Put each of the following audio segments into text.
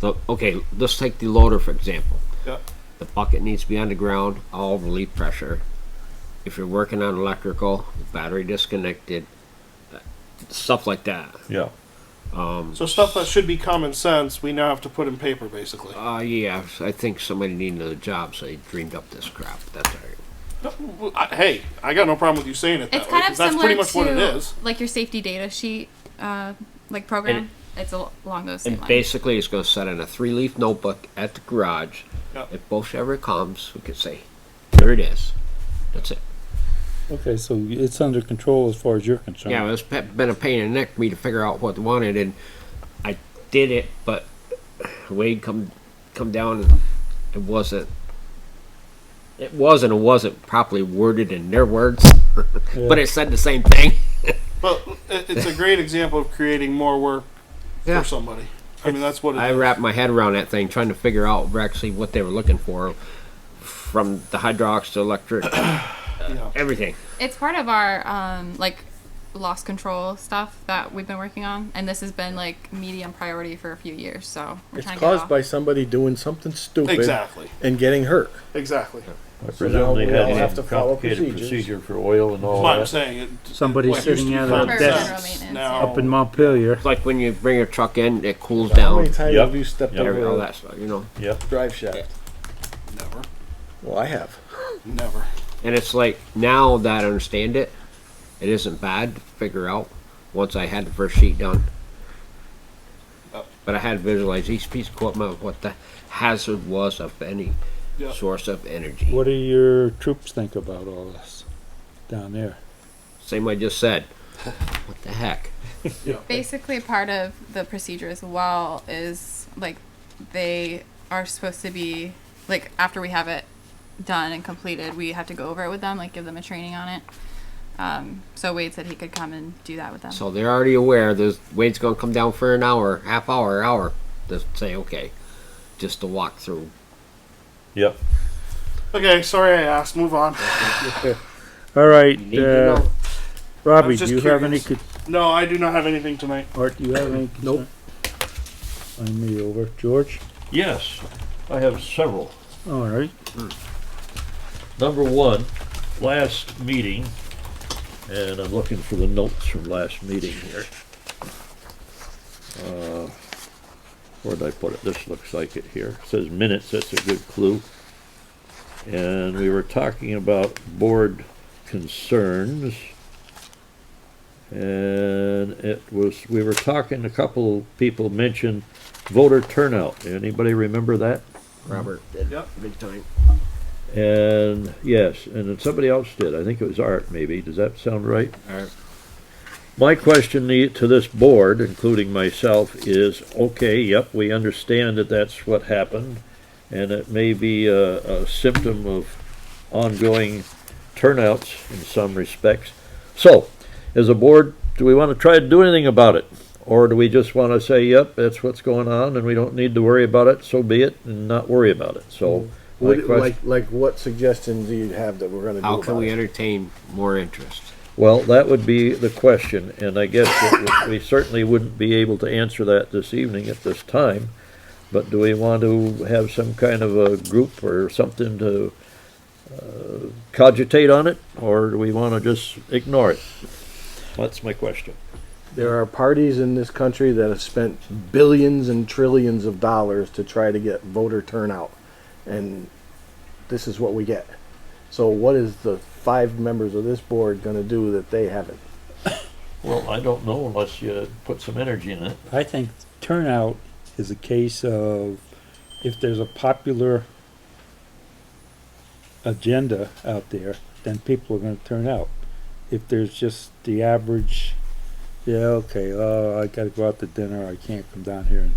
the, okay, let's take the loader for example. Yeah. The bucket needs to be underground, all relief pressure. If you're working on electrical, battery disconnected, stuff like that. Yeah. So stuff that should be common sense, we now have to put in paper, basically. Uh, yeah, I think somebody needed a job, so they dreamed up this crap. That's all right. Well, I- Hey, I got no problem with you saying it that It's way, kind 'cause of that's similar pretty much to what it is. like your safety data sheet, uh, like program. And- it's al- along those same And lines. basically, it's going to set in a three leaf notebook at the garage. Yeah. If Bosch ever comes, we can say, there it is. That's it. Okay, so it's under control as far as you're concerned. Yeah, it's pe- been a pain in the neck for me to figure out what they wanted, and I did it, but Wade come come down and it wasn't. It was and it wasn't properly worded in their words, but it said the same thing. But it- it's a great example of creating more work Yeah. for somebody. I mean, that's what it I is. wrapped my head around that thing, trying to figure out actually what they were looking for, from the hydraulics to electric, Yeah. everything. it's part of our um, like loss control stuff that we've been working on, and this has been like medium priority for a few years. So we're It's trying to caused get by it off. somebody doing something stupid Exactly. and getting hurt. Exactly. That's I now presume they we all had have to a follow complicated procedures. procedure for oil and all what I'm that. saying. It- Somebody what used to sitting be at a common desk sense General now- maintenance, Up in Montpelier. It's like when you bring your truck in, it cools How down, many times Yep. have you stepped Yep. every, all over that stuff, you know. Yep. a drive shaft? Never. Well, I have. Never. And it's like now that I understand it, it isn't bad to figure out once I had the first sheet done. Yep. But I had to visualize each piece of equipment of what the hazard was of any Yep. source of energy. What do your troops think about all this down there? Same I just said. What the heck? basically part of the procedure as well is like they are supposed to be like after we have it done and completed, we have to go over it with them, like give them a training on it. Um, so Wade said he could come and do that with them. So they're already aware. There's Wade's gonna come down for an hour, half hour, hour to say okay, just to walk through. Yep. Okay, sorry I asked. Move on. All right, You need to uh, know. I'm Robbie, do just you have any, curious. con- No, I do not have anything tonight. Art, do you have any? Nope. Find me over. George? Yes, I have several. All right. Number one, last meeting, and I'm looking for the notes from last meeting here. Uh, Where'd I put it? This looks like it here. It Says minutes, that's a good clue. And we were talking about board concerns. And it was, we were talking, a couple people mentioned voter turnout. Anybody remember that? Robert did Yep. big time. And yes, and then somebody else did. I think it was Art, maybe. Does that sound right? Art. My question the- to this board, including myself, is, okay, yep, we understand that that's what happened, and it may be a, a symptom of ongoing turnouts in some respects. So, as a board, do we want to try to do anything about it? Or do we just want to say, yep, that's what's going on, and we don't need to worry about it, so be it, and not worry about it? So, my What, question- Mm-hmm. like, like what suggestions do you have that we're going to do How can about we it? entertain more interest? Well, that would be the question, and I guess that we we certainly wouldn't be able to answer that this evening at this time. But do we want to have some kind of a group or something to uh, cogitate on it, or do we want to just ignore it? That's my question. There are parties in this country that have spent billions and trillions of dollars to try to get voter turnout, and this is what we get. So, what is the five members of this board going to do that they haven't? Well, I don't know unless you put some energy in it. I think turnout is a case of if there's a popular agenda out there, then people are going to turn out. If there's just the average, yeah, okay, oh, I got to go out to dinner, I can't come down here and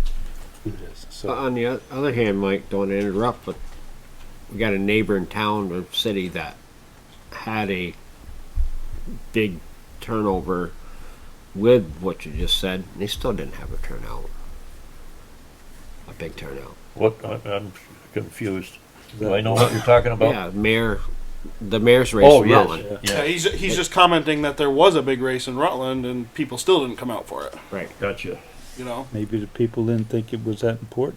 do this. So But on the o- other hand, Mike, don't wanna interrupt, but we got a neighbor in town or city that had a big turnover with what you just said. and They still didn't have a turnout, a big turnout. What, I- I'm confused. Do I know what you're talking about? yeah, mayor, the mayor's race. Oh, in Rutland. yes, Yeah, yeah, he's he's just commenting that there was a big race in Rutland and people still didn't come out for it. right. gotcha. You know. maybe the people didn't think it was that important.